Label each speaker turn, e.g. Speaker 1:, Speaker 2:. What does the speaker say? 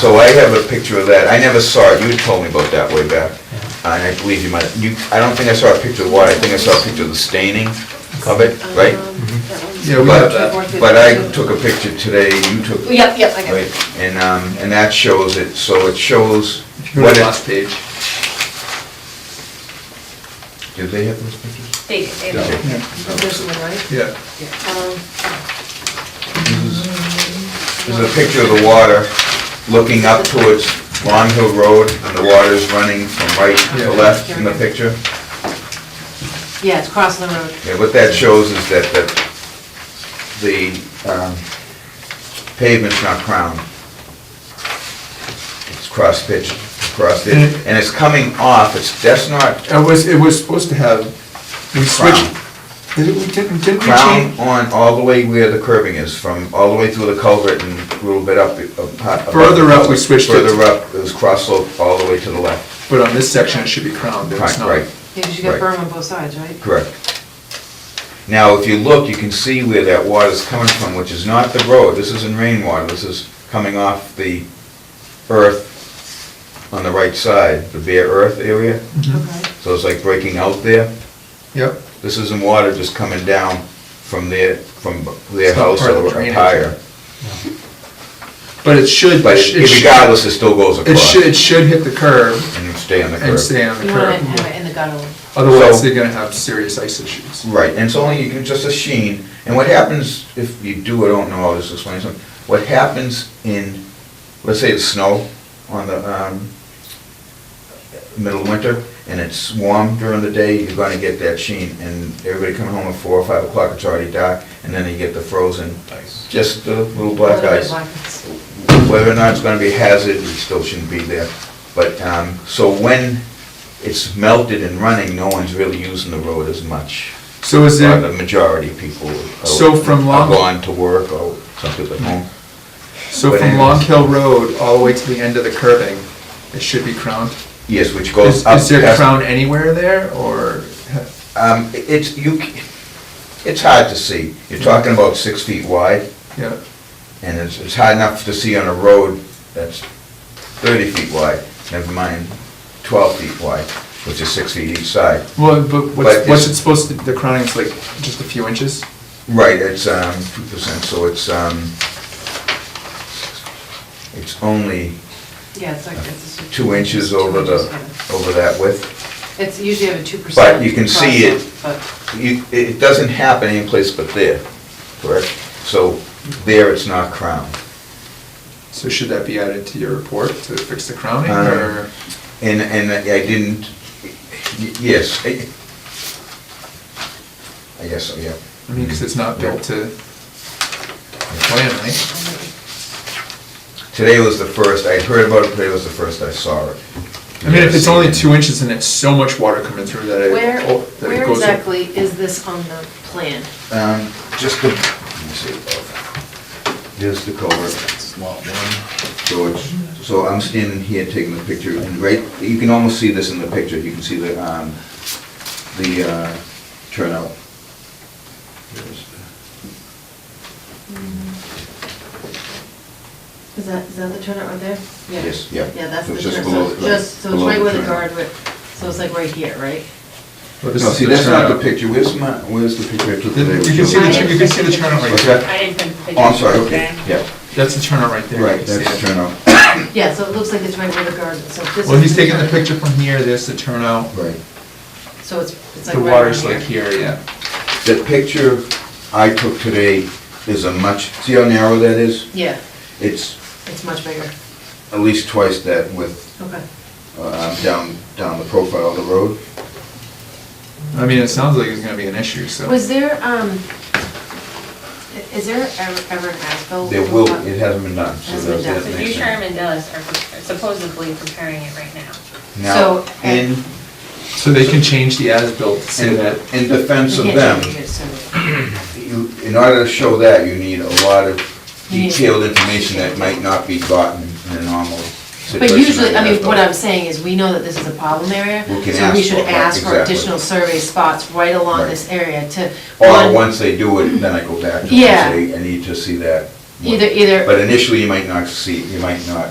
Speaker 1: So I have a picture of that. I never saw it. You had told me about that way back. And I believe you might, you, I don't think I saw a picture of the water. I think I saw a picture of the staining of it, right?
Speaker 2: Mm-hmm.
Speaker 3: Yeah, Um, we
Speaker 1: But, uh,
Speaker 3: have
Speaker 1: but I took a picture today, you took,
Speaker 4: Yep, yep, I got
Speaker 1: right?
Speaker 4: it.
Speaker 1: And, um, and that shows it, so it shows
Speaker 3: If you go
Speaker 1: what
Speaker 3: to the
Speaker 1: it,
Speaker 3: last page.
Speaker 1: do they have those pictures?
Speaker 4: They, they,
Speaker 1: Okay.
Speaker 2: This one, right?
Speaker 3: Yeah.
Speaker 2: Um,
Speaker 1: This is a picture of the water looking up towards Long Hill Road, and the water's running from right to
Speaker 3: Yeah.
Speaker 1: left in the picture.
Speaker 2: Yeah, it's crossing the road.
Speaker 1: Yeah, what that shows is that, that the um, pavement's not crowned. It's cross-pitched, crossed it,
Speaker 3: Mm-hmm.
Speaker 1: and it's coming off, it's, that's not
Speaker 3: It was, it was supposed to have, we switched,
Speaker 1: crowned.
Speaker 3: did it- we didn't, didn't we
Speaker 1: Crown
Speaker 3: change?
Speaker 1: on all the way where the curving is, from all the way through the culvert and a little bit up. up- up-
Speaker 3: Further up, we switched it.
Speaker 1: Further up, it was cross slope all the way to the left,
Speaker 3: But on this section, it should be crowned, but it's
Speaker 1: Right,
Speaker 3: not.
Speaker 1: right.
Speaker 2: Yeah, 'cause you got
Speaker 1: Right.
Speaker 2: berm on both sides, right?
Speaker 1: Correct. Now, if you look, you can see where that water's coming from, which is not the road. This isn't rainwater. This is coming off the earth on the right side, the bare earth area.
Speaker 3: Mhm.
Speaker 2: Okay.
Speaker 1: So it's like breaking out there.
Speaker 3: Yep,
Speaker 1: This isn't water just coming down from their, from their
Speaker 3: It's not
Speaker 1: house
Speaker 3: part of the
Speaker 1: or up
Speaker 3: drainage.
Speaker 1: higher.
Speaker 3: but it should,
Speaker 1: But
Speaker 3: it should, it should-
Speaker 1: regardless, it still goes
Speaker 3: it
Speaker 1: across
Speaker 3: should, it should hit the curb
Speaker 1: and stay on the curb.
Speaker 3: and stay on the
Speaker 2: You want to have
Speaker 3: curb.
Speaker 2: it in the gutter.
Speaker 3: Otherwise,
Speaker 1: So-
Speaker 3: they're gonna have serious ice issues.
Speaker 1: Right, and it's only, you can just a sheen, and what happens, if you do or don't know, I'll just explain something. What happens in, let's say it's snow on the, um, middle of winter, and it's warm during the day, you're gonna get that sheen, and everybody coming home at four or five o'clock, it's already dark, and then you get the frozen, just the little black
Speaker 2: Little bit
Speaker 1: ice.
Speaker 2: black ice.
Speaker 1: Whether or not it's gonna be a hazard, it still shouldn't be there, but, um, so when it's melted and running, no one's really using the road as much.
Speaker 3: So is
Speaker 1: Or the
Speaker 3: it,
Speaker 1: majority of people are-
Speaker 3: So from
Speaker 1: are
Speaker 3: Long- Hmm.
Speaker 1: gone to work or some people at home.
Speaker 3: so from Long Hill Road all the way to the end of the curbing, it should be crowned?
Speaker 1: Yes, which
Speaker 3: Is
Speaker 1: goes up.
Speaker 3: is there
Speaker 1: past-
Speaker 3: crown anywhere there, or?
Speaker 1: Um, it's, you, c- it's hard to see. You're
Speaker 3: Hmm.
Speaker 1: talking about six feet wide
Speaker 3: Yeah,
Speaker 1: and it's, it's hard enough to see on a road that's thirty feet wide, never mind twelve feet wide, which is six feet each side.
Speaker 3: well, but
Speaker 1: But it's-
Speaker 3: what's, what's it supposed to, the crowning's like just a few inches?
Speaker 1: Right, it's, um, two percent, so it's, um, it's only
Speaker 2: Yeah, it's like, it's a.
Speaker 1: two inches over the, over that width.
Speaker 2: It's usually have a two percent.
Speaker 1: But you can see it.
Speaker 2: But
Speaker 1: You, it doesn't happen anyplace but there, correct? So there it's not crowned.
Speaker 3: So should that be added to your report to fix the crowning,
Speaker 1: Um,
Speaker 3: or?
Speaker 1: And, and I didn't, y- yes. I I guess, so, yeah.
Speaker 3: I mean, because it's not built to plan, right?
Speaker 1: Today was the first, I heard about it, today was the first I saw it.
Speaker 3: I mean, if it's only two inches and it's so much water coming through that it.
Speaker 2: where,
Speaker 3: oh, that it
Speaker 2: where
Speaker 3: goes-
Speaker 2: exactly is this on the plan?
Speaker 1: Um, just the, let me see. There's the culvert. George, so I'm standing here taking the picture, and right, you can almost see this in the picture, you can see the, um, the, uh, turnout. There's the-
Speaker 2: Mm-hmm. Is that, is that the turnout right there? Yeah.
Speaker 1: Yes, yeah.
Speaker 2: Yeah, that's
Speaker 1: So
Speaker 2: the
Speaker 1: it's just
Speaker 2: turnout,
Speaker 1: below
Speaker 2: so
Speaker 1: the-
Speaker 2: just, so it's
Speaker 1: below
Speaker 2: right
Speaker 1: the
Speaker 2: where the
Speaker 1: turnout.
Speaker 2: guard would, so it's like right here, right?
Speaker 3: Well, Oh, this
Speaker 1: No,
Speaker 3: is
Speaker 1: see,
Speaker 3: the
Speaker 1: that's not the
Speaker 3: turnout.
Speaker 1: picture, where's my, where's the picture I took today?
Speaker 3: You can see the, tur- you can see the turnout right
Speaker 1: What's
Speaker 3: there.
Speaker 1: that?
Speaker 4: I didn't print the picture.
Speaker 1: Oh, I'm sorry, okay, yeah,
Speaker 3: That's the turnout right there.
Speaker 1: right,
Speaker 3: You can see
Speaker 1: that's the
Speaker 3: it.
Speaker 1: turnout,
Speaker 2: Yeah, so it looks like it's right where the guard, so this is.
Speaker 3: Well, he's taking the picture from here, there's the turnout,
Speaker 1: right.
Speaker 2: So it's, it's like
Speaker 3: the
Speaker 2: right.
Speaker 3: water's
Speaker 2: around
Speaker 3: like here, yeah.
Speaker 1: The picture I took today is a much, see how narrow that is?
Speaker 2: Yeah,
Speaker 1: It's
Speaker 2: it's much bigger,
Speaker 1: at least twice that width,
Speaker 2: okay.
Speaker 1: uh, down, down the profile of the road.
Speaker 3: I mean, it sounds like it's gonna be an issue, so.
Speaker 2: Was there, um, i- is there ever ever an asphalt?
Speaker 1: There will, it hasn't been done, so
Speaker 2: Oh, Hasn't
Speaker 1: that
Speaker 2: been
Speaker 1: that makes
Speaker 2: done.
Speaker 4: So
Speaker 1: sense.
Speaker 4: New Sherman does are supposedly preparing it right now.
Speaker 1: Now,
Speaker 2: So-
Speaker 1: in,
Speaker 3: So they can change the as-built to say that.
Speaker 1: in- in defense of
Speaker 2: You
Speaker 1: them,
Speaker 2: can't change it, so-
Speaker 1: you, in order to show that, you need a lot of
Speaker 2: You need-
Speaker 1: detailed information that might not be gotten in a normal
Speaker 2: But
Speaker 1: situation.
Speaker 2: usually, I
Speaker 1: like
Speaker 2: mean,
Speaker 1: that,
Speaker 2: what
Speaker 1: though.
Speaker 2: I'm saying is, we know that this is a problem area,
Speaker 1: We can
Speaker 2: so we
Speaker 1: ask
Speaker 2: should
Speaker 1: for it,
Speaker 2: ask for
Speaker 1: exactly.
Speaker 2: additional survey spots right along
Speaker 1: Right.
Speaker 2: this area to.
Speaker 1: Or
Speaker 2: one-
Speaker 1: once they do it, then I go back to them
Speaker 2: Yeah.
Speaker 1: and say, I need to see that. more."
Speaker 2: Either- either-
Speaker 1: But initially, you might not see, you might not